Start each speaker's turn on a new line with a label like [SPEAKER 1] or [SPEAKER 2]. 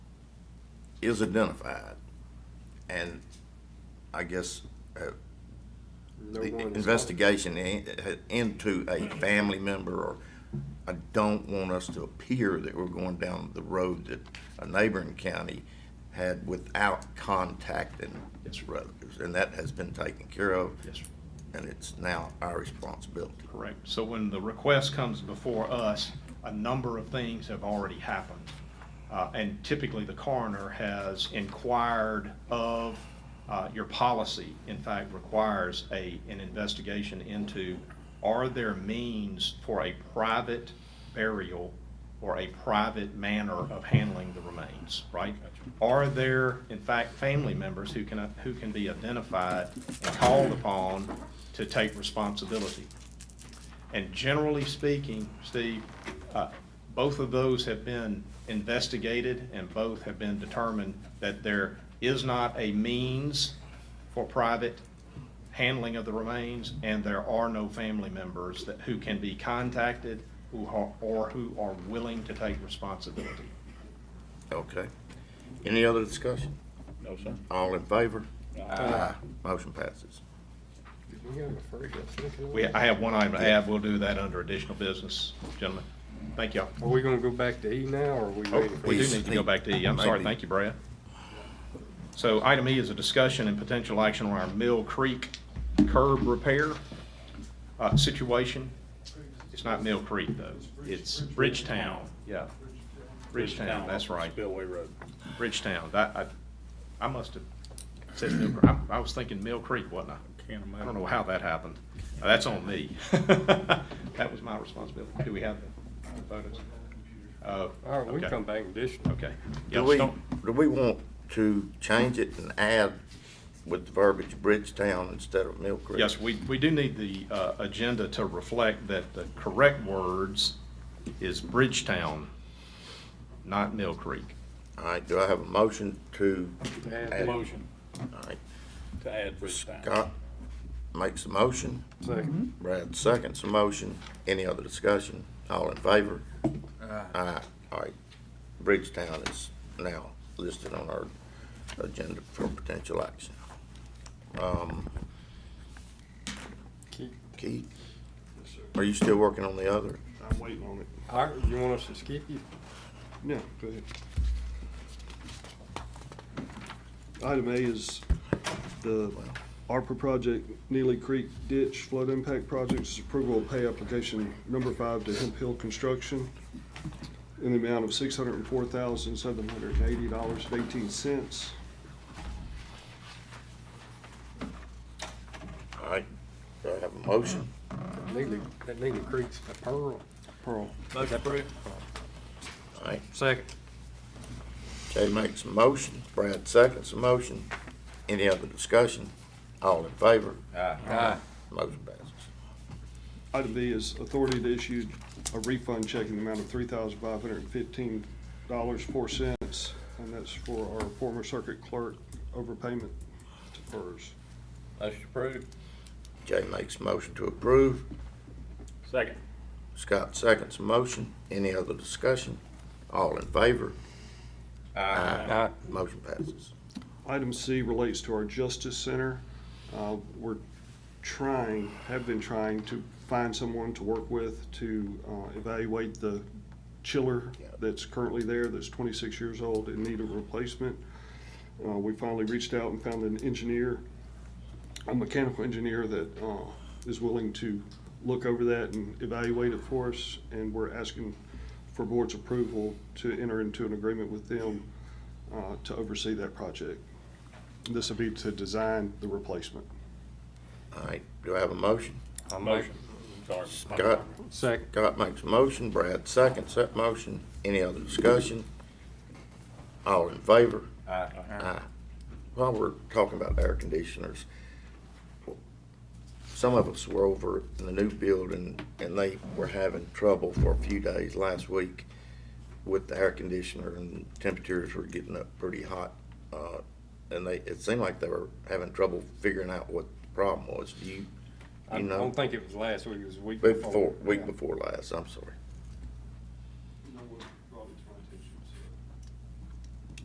[SPEAKER 1] is identified, and I guess uh,
[SPEAKER 2] No
[SPEAKER 1] the
[SPEAKER 2] one-
[SPEAKER 1] investigation in- into a family member, or I don't want us to appear that we're going down the road that a neighboring county had without contacting
[SPEAKER 3] Yes, sir.
[SPEAKER 1] relatives, and that has been taken care of,
[SPEAKER 3] Yes, sir.
[SPEAKER 1] and it's now our responsibility.
[SPEAKER 3] Correct. So when the request comes before us, a number of things have already happened. Uh, And typically, the coroner has inquired of, uh, your policy, in fact, requires a, an investigation into, are there means for a private burial or a private manner of handling the remains, right? Are there, in fact, family members who can, who can be identified and called upon to take responsibility? And generally speaking, Steve, uh, both of those have been investigated and both have been determined that there is not a means for private handling of the remains and there are no family members that, who can be contacted who are, or who are willing to take responsibility.
[SPEAKER 1] Okay. Any other discussion?
[SPEAKER 4] No, sir.
[SPEAKER 1] All in favor? Aye. Motion passes.
[SPEAKER 2] Did we get a first or second?
[SPEAKER 3] We, I have one item to add. We'll do that under additional business, gentlemen. Thank y'all.
[SPEAKER 2] Are we gonna go back to E now, or are we
[SPEAKER 3] Oh,
[SPEAKER 2] waiting? for
[SPEAKER 3] we do
[SPEAKER 1] Please.
[SPEAKER 3] need to go back to E. I'm sorry,
[SPEAKER 1] Maybe.
[SPEAKER 3] thank you, Brad. So item E is a discussion and potential action on our Mill Creek curb repair uh, situation. It's not Mill Creek, though. It's Bridgetown, yeah. Bridgetown, that's right.
[SPEAKER 4] Spillway Road.
[SPEAKER 3] Bridgetown. That, I, I must have said Mill, Creek. I, I was thinking Mill Creek, wasn't I?
[SPEAKER 4] Can't imagine.
[SPEAKER 3] I don't know how that happened. Now, That's on me. That was my responsibility. Do we have the photos? Oh,
[SPEAKER 2] All right, we
[SPEAKER 3] okay.
[SPEAKER 2] can come back and dish.
[SPEAKER 3] Okay.
[SPEAKER 1] Do
[SPEAKER 3] Y'all
[SPEAKER 1] we,
[SPEAKER 3] don't-
[SPEAKER 1] do we want to change it and add with the verbiage Bridgetown instead of Mill Creek?
[SPEAKER 3] Yes, we, we do need the uh, agenda to reflect that the correct words is Bridgetown, not Mill Creek.
[SPEAKER 1] All right, do I have a motion to,
[SPEAKER 2] Add
[SPEAKER 1] Add.
[SPEAKER 4] Motion
[SPEAKER 1] all right,
[SPEAKER 4] to add Bridgetown.
[SPEAKER 1] Scott makes a motion,
[SPEAKER 2] the second.
[SPEAKER 1] Brad seconds a motion, any other discussion? All in favor? Aye. All right, Bridgetown is now listed on our agenda for potential action. Um,
[SPEAKER 2] Keep-
[SPEAKER 1] Keith, are you still working on the other?
[SPEAKER 5] I'm waiting on it.
[SPEAKER 2] All right, you want us to skip you?
[SPEAKER 5] No, go ahead. Item A is the ARPA project, Neely Creek Ditch Flood Impact Project. This is approval of pay application number five to Hemp Hill Construction in the amount of six hundred and four thousand, seven hundred and eighty dollars and eighteen cents.
[SPEAKER 1] All right, do I have a motion?
[SPEAKER 2] Neely, that Neely Creek's the pearl.
[SPEAKER 5] Pearl,
[SPEAKER 4] Motion approved.
[SPEAKER 1] All right,
[SPEAKER 2] Second.
[SPEAKER 1] Jay makes a motion, Brad seconds a motion. Any other discussion? All in favor? Ah.
[SPEAKER 2] Aye.
[SPEAKER 1] Motion passes.
[SPEAKER 5] Item B is authority to issue a refund check in the amount of three thousand five hundred and fifteen dollars, four cents, and that's for our former circuit clerk overpayment to PERS.
[SPEAKER 4] Motion approved.
[SPEAKER 1] Jay makes a motion to approve,
[SPEAKER 4] Second.
[SPEAKER 1] Scott seconds a motion. Any other discussion? All in favor? Aye. Motion passes.
[SPEAKER 5] Item C relates to our Justice Center. Uh, We're trying, have been trying to find someone to work with to uh, evaluate the chiller
[SPEAKER 1] Yeah.
[SPEAKER 5] that's currently there, that's 26 years old and need a replacement. Uh, We finally reached out and found an engineer, a mechanical engineer that uh, is willing to look over that and evaluate it for us. And we're asking for board's approval to enter into an agreement with them uh, to oversee that project. This would be to design the replacement.
[SPEAKER 1] All right, do I have a motion?
[SPEAKER 4] Motion. Sorry.
[SPEAKER 1] Scott,
[SPEAKER 2] Second.
[SPEAKER 1] Scott makes a motion, Brad seconds that motion. Any other discussion? All in favor? Aye. While we're talking about air conditioners, some of us were over in the new building and they were having trouble for a few days last week with the air conditioner and temperatures were getting up pretty hot. Uh, and they, it seemed like they were having trouble figuring out what the problem was. Do you,
[SPEAKER 2] I
[SPEAKER 1] you know?
[SPEAKER 2] don't think it was last week, it was the week
[SPEAKER 1] Week
[SPEAKER 2] before.
[SPEAKER 1] before,
[SPEAKER 2] Yeah.
[SPEAKER 1] week before last, I'm sorry.